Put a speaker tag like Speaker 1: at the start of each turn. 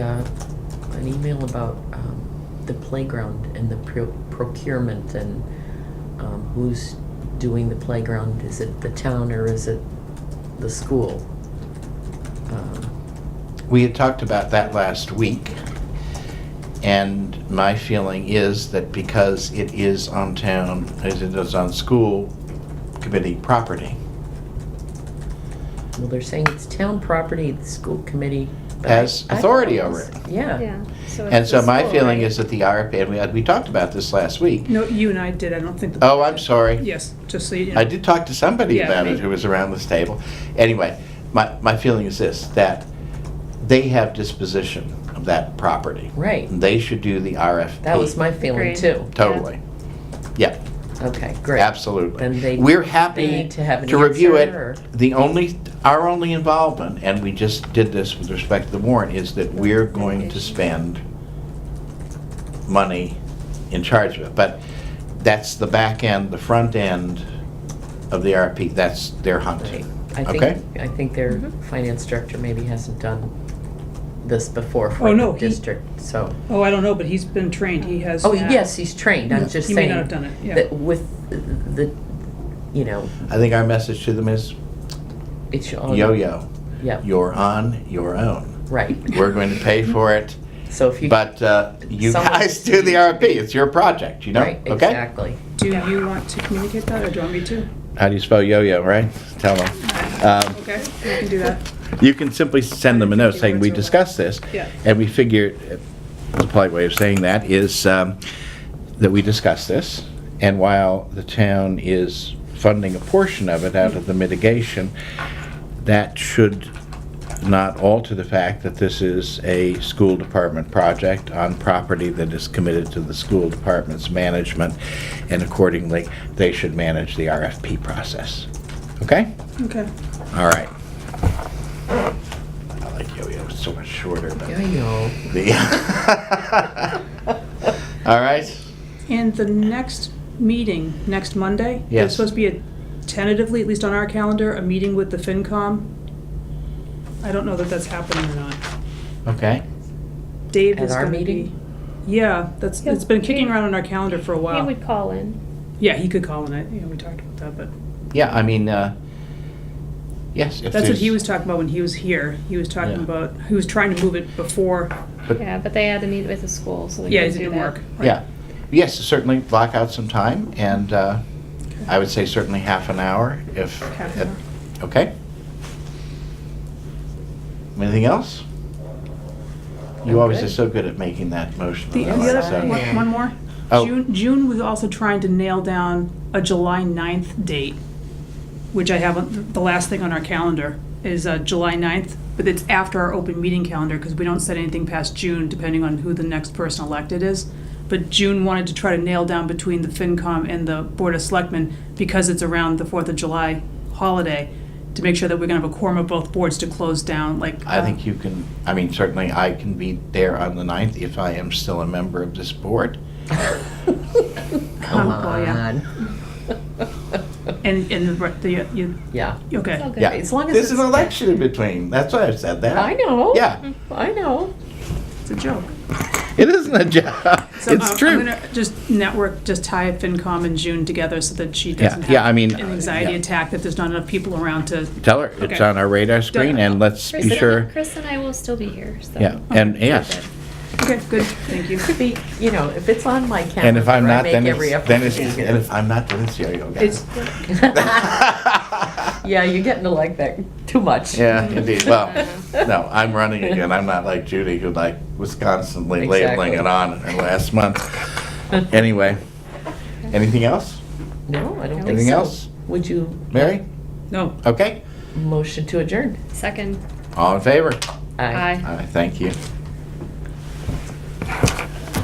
Speaker 1: an email about um, the playground and the pro- procurement and um, who's doing the playground? Is it the town or is it the school? Um,
Speaker 2: We had talked about that last week, and my feeling is that because it is on town, it is on school committee property,
Speaker 1: Well, they're saying it's town property, the school committee. but I-
Speaker 2: Has
Speaker 1: I thought
Speaker 2: authority
Speaker 1: it was-
Speaker 2: over it.
Speaker 1: Yeah.
Speaker 3: Yeah. So
Speaker 2: And
Speaker 3: it's
Speaker 2: so
Speaker 3: the
Speaker 2: my
Speaker 3: school,
Speaker 2: feeling
Speaker 3: right?
Speaker 2: is that the RFP, and we, had- we talked about this last week.
Speaker 4: No, you and I did, I don't think. the-
Speaker 2: Oh, I'm sorry.
Speaker 4: Yes, just so you know.
Speaker 2: I did talk to somebody
Speaker 4: Yeah,
Speaker 2: about it
Speaker 4: me.
Speaker 2: who was around this table. Anyway, my, my feeling is this, that they have disposition of that property.
Speaker 1: Right.
Speaker 2: They should do the RFP.
Speaker 1: That was my feeling
Speaker 3: Agreed.
Speaker 1: too.
Speaker 2: Totally. Yeah.
Speaker 1: Okay, great. Then
Speaker 2: Absolutely.
Speaker 1: they-
Speaker 2: We're
Speaker 1: they
Speaker 2: happy
Speaker 1: need to have an
Speaker 2: to review
Speaker 1: answer, or-
Speaker 2: it. The only, our only involvement, and we just did this with respect to the warrant, is that we're going to spend money in charge of it. But that's the back end, the front end of the RFP, that's their hunt.
Speaker 1: Right. I
Speaker 2: Okay?
Speaker 1: think, I think their
Speaker 3: Mhm.
Speaker 1: finance director maybe hasn't done this before
Speaker 4: Oh,
Speaker 1: for
Speaker 4: no,
Speaker 1: the
Speaker 4: he-
Speaker 1: district, so.
Speaker 4: Oh, I don't know, but he's been trained, he has.
Speaker 1: Oh, yes, he's trained, I'm just
Speaker 4: He
Speaker 1: saying.
Speaker 4: may not have done it, yeah.
Speaker 1: That with the, you know,
Speaker 2: I think our message to them is,
Speaker 1: it should. all-
Speaker 2: yo-yo,
Speaker 1: Yeah,
Speaker 2: you're on your own.
Speaker 1: right.
Speaker 2: We're going to pay for it,
Speaker 1: So if you.
Speaker 2: but uh, you
Speaker 1: Someone-
Speaker 2: guys do the RFP, it's your project, you know?
Speaker 1: Right,
Speaker 2: Okay?
Speaker 1: exactly.
Speaker 4: Do you want to communicate that, or do you want me to?
Speaker 2: How do you spell yo-yo, right? Tell them. Um,
Speaker 4: Okay, we can do that.
Speaker 2: You can simply send them a note saying, "We discussed this."
Speaker 4: Yeah.
Speaker 2: And we figured, uh, the polite way of saying that is um, that we discussed this, and while the town is funding a portion of it out of the mitigation, that should not alter the fact that this is a school department project on property that is committed to the school department's management, and accordingly, they should manage the RFP process. Okay?
Speaker 4: Okay.
Speaker 2: All right. I like yo-yo, it's so much shorter, but
Speaker 1: Yeah, I know.
Speaker 2: the. All right,
Speaker 4: And the next meeting, next Monday?
Speaker 2: Yes.
Speaker 4: There's supposed to be a, tentatively, at least on our calendar, a meeting with the FinCom. I don't know that that's happening or not.
Speaker 2: okay.
Speaker 4: Dave
Speaker 1: At
Speaker 4: is
Speaker 1: our
Speaker 4: gonna
Speaker 1: meeting?
Speaker 4: be. Yeah, that's,
Speaker 3: Yeah,
Speaker 4: it's been kicking
Speaker 3: he-
Speaker 4: around on our calendar for a
Speaker 3: He
Speaker 4: while.
Speaker 3: would call in.
Speaker 4: Yeah, he could call in, I, yeah, we talked about that, but.
Speaker 2: Yeah, I mean, uh, yes, if
Speaker 4: That's what he was
Speaker 2: there's,
Speaker 4: talking about when he was here. He was talking
Speaker 2: Yeah.
Speaker 4: about, he was trying to move it before,
Speaker 2: But-
Speaker 3: Yeah, but they had to meet with the school, so they
Speaker 4: yeah, it
Speaker 3: couldn't do
Speaker 4: didn't
Speaker 3: that.
Speaker 4: work. Right.
Speaker 2: yeah, yes, certainly block out some time, and uh, I would say certainly half an hour if.
Speaker 4: Half an
Speaker 2: Okay? Anything else?
Speaker 1: I'm
Speaker 2: You always
Speaker 1: good.
Speaker 2: are so good at making that motion.
Speaker 4: The,
Speaker 2: I
Speaker 4: the
Speaker 2: like
Speaker 4: other,
Speaker 2: that.
Speaker 4: one, one more.
Speaker 2: Oh.
Speaker 4: June, June was also trying to nail down a July 9th date, which I have, on- the last thing on our calendar is uh, July 9th, but it's after our open meeting calendar because we don't set anything past June depending on who the next person elected is. But June wanted to try to nail down between the FinCom and the Board of Selectmen because it's around the 4th of July holiday to make sure that we're going to have a quorum of both boards to close down like.
Speaker 2: I
Speaker 1: Um,
Speaker 4: uh,
Speaker 2: think you can, I mean, certainly I can be there on the 9th if I am still a member of this board.
Speaker 1: Come
Speaker 4: Oh, yeah.
Speaker 1: on.
Speaker 4: And, and the, the, you,
Speaker 1: Yeah.
Speaker 4: okay.
Speaker 3: It's all good.
Speaker 2: Yeah.
Speaker 1: As long as
Speaker 2: There's an
Speaker 1: it's-
Speaker 2: election in between, that's why I've said that.
Speaker 1: I know.
Speaker 2: Yeah,
Speaker 1: I know.
Speaker 4: It's a joke.
Speaker 2: it isn't a job,
Speaker 4: So, um,
Speaker 1: uh,
Speaker 2: it's
Speaker 4: I'm
Speaker 2: true.
Speaker 4: gonna just network, just tie FinCom and June together so that she doesn't
Speaker 2: yeah, I
Speaker 4: have
Speaker 2: mean,
Speaker 4: an
Speaker 2: uh,
Speaker 4: anxiety
Speaker 2: yeah.
Speaker 4: attack that there's not enough people around to,
Speaker 2: Tell her, it's
Speaker 4: Okay.
Speaker 2: on our radar screen, and let's
Speaker 3: Chris
Speaker 2: be
Speaker 3: and-
Speaker 2: sure,
Speaker 3: Chris and I will still be here, so.
Speaker 2: yeah, and yes.
Speaker 4: okay, good, thank you.
Speaker 1: Could be, you know, if it's on my calendar.
Speaker 2: And if I'm
Speaker 1: I
Speaker 2: not,
Speaker 1: make
Speaker 2: then
Speaker 1: every
Speaker 2: it's,
Speaker 1: effort
Speaker 2: then
Speaker 1: to
Speaker 2: it's,
Speaker 1: be here.
Speaker 2: and if I'm not, then it's yo-yo again.
Speaker 4: It's,
Speaker 1: Yeah, you're getting to like that too much.
Speaker 2: Yeah, indeed, well, no, I'm running again, I'm not like Judy, who like was constantly
Speaker 1: Exactly.
Speaker 2: labeling it on in her last month. Anyway, anything else?
Speaker 1: No, I don't think so.
Speaker 2: Anything else?
Speaker 1: Would you
Speaker 2: Mary?
Speaker 4: no,
Speaker 2: Okay,
Speaker 1: motion to adjourn?
Speaker 3: Second,
Speaker 2: all in favor?
Speaker 3: aye.
Speaker 2: Aye, thank you.